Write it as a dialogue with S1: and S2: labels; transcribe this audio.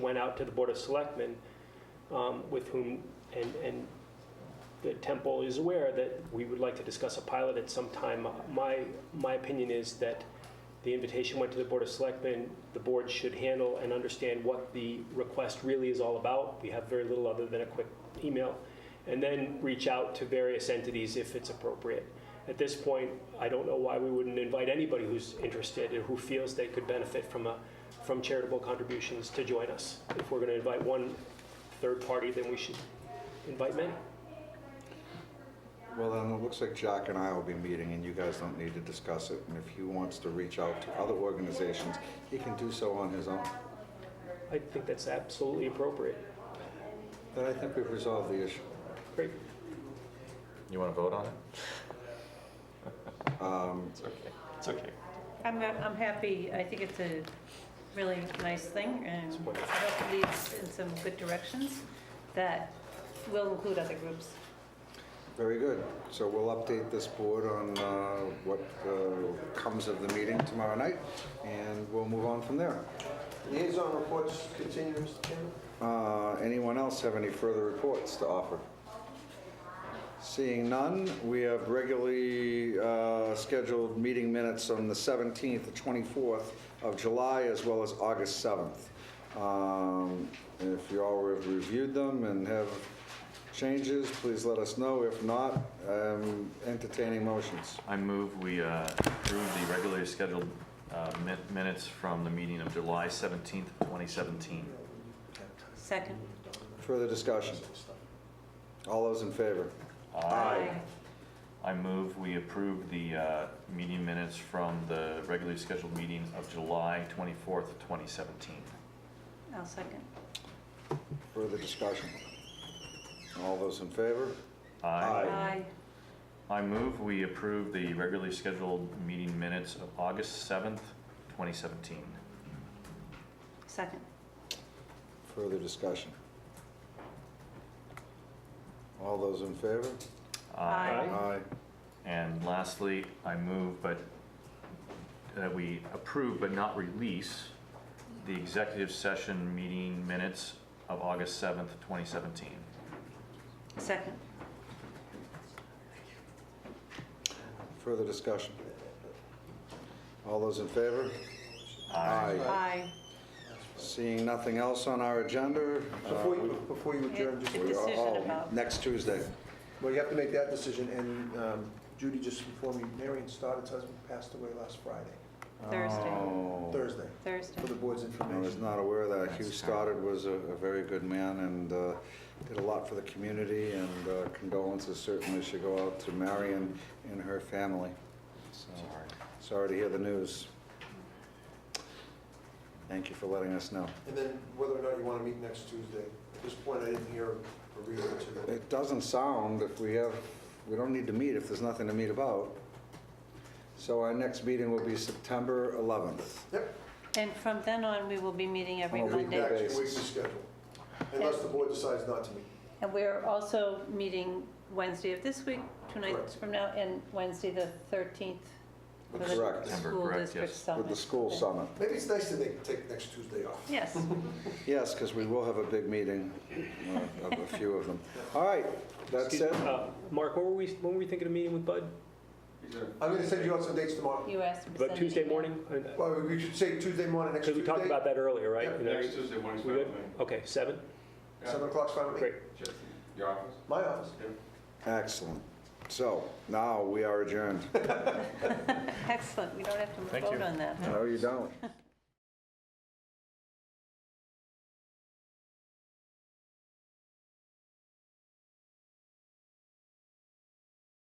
S1: went out to the Board of Selectmen um, with whom, and, and the temple is aware that we would like to discuss a pilot at some time. My, my opinion is that the invitation went to the Board of Selectmen. The board should handle and understand what the request really is all about. We have very little other than a quick email. And then reach out to various entities if it's appropriate. At this point, I don't know why we wouldn't invite anybody who's interested or who feels they could benefit from a, from charitable contributions to join us. If we're going to invite one third party, then we should invite many.
S2: Well, then it looks like Jack and I will be meeting, and you guys don't need to discuss it. And if he wants to reach out to other organizations, he can do so on his own.
S1: I think that's absolutely appropriate.
S2: Then I think we've resolved the issue.
S1: Great.
S3: You want to vote on it? Um, It's okay. It's okay.
S4: I'm, uh, I'm happy, I think it's a really nice thing, and I hope it leads in some good directions that will include other groups.
S2: Very good. So we'll update this board on uh, what uh, comes of the meeting tomorrow night, and we'll move on from there.
S5: Liaison reports continue, Mr. Chairman.
S2: Uh, Anyone else have any further reports to offer? Seeing none, we have regularly uh, scheduled meeting minutes on the 17th, the 24th of July, as well as August 7th. Um, If you all have reviewed them and have changes, please let us know. If not, um, entertaining motions.
S3: I move we uh, approve the regularly scheduled uh, min- minutes from the meeting of July 17th, 2017.
S4: Second.
S2: Further discussion? All those in favor?
S3: I move we approve the uh, meeting minutes from the regularly scheduled meeting of July 24th, 2017.
S4: I'll second.
S2: Further discussion? All those in favor? Aye.
S3: I move we approve the regularly scheduled meeting minutes of August 7th, 2017.
S4: Second.
S2: Further discussion? All those in favor?
S4: Aye.
S3: And lastly, I move but, that we approve but not release the executive session meeting minutes of August 7th, 2017.
S4: Second.
S2: Further discussion? All those in favor?
S4: Aye.
S2: Seeing nothing else on our agenda? uh,
S5: Before you, before you
S4: Yeah.
S5: adjourn, just,
S2: we are-
S4: Decision
S2: oh,
S4: about-
S2: Next Tuesday.
S5: well, you have to make that decision, and um, Judy just informed me, Marion Stoddard's husband passed away last Friday,
S4: Thursday.
S2: Oh,
S5: Thursday,
S4: Thursday.
S5: for the board's
S2: I was
S5: information.
S2: not aware of that. Hugh Stoddard was a a very good man and uh, did a lot for the community, and uh, condolences certainly should go out to Marion and her family. So,
S3: Sorry.
S2: Sorry to hear the news. Thank you for letting us know.
S5: And then whether or not you want to meet next Tuesday. At this point, I didn't hear a reason to.
S2: It doesn't sound if we have, we don't need to meet if there's nothing to meet about. So our next meeting will be September 11th.
S5: Yep,
S4: And from then on, we will be meeting every
S2: On a weekly
S4: Monday.
S5: back to your weekly
S2: basis.
S5: schedule, unless the board decides not to meet.
S4: And we're also meeting Wednesday of this week, two nights
S5: Correct.
S4: from now, and Wednesday the 13th. for the
S2: Correct.
S4: School
S3: Correct,
S4: district
S3: yes.
S2: With the
S4: summit.
S2: school summit.
S5: Maybe it's nice to make- take next Tuesday off.
S4: Yes.
S2: Yes, because we will have a big meeting uh, of a few of them. All right, that's
S1: Excuse-
S2: it.
S1: uh, Mark, when were we, when were we thinking of meeting with Bud?
S5: I'm going to send you out some dates tomorrow.
S4: You asked me to
S1: About
S4: send an
S1: Tuesday
S4: email.
S1: morning? Because
S5: Well, we should say Tuesday morning, next Tuesday.
S1: we talked about that earlier, right?
S5: Yeah,
S1: You know,
S6: Next Tuesday morning's
S1: We
S6: fine
S1: good?
S6: with me.
S1: Okay, seven?
S5: Seven o'clock's fine with me.
S1: Great.
S6: Just Your office?
S5: My office.
S6: Yeah.
S2: Excellent. So now we are adjourned.
S4: Excellent, we don't have to
S3: Thank
S4: vote
S3: you.
S4: on that.
S2: No, you don't.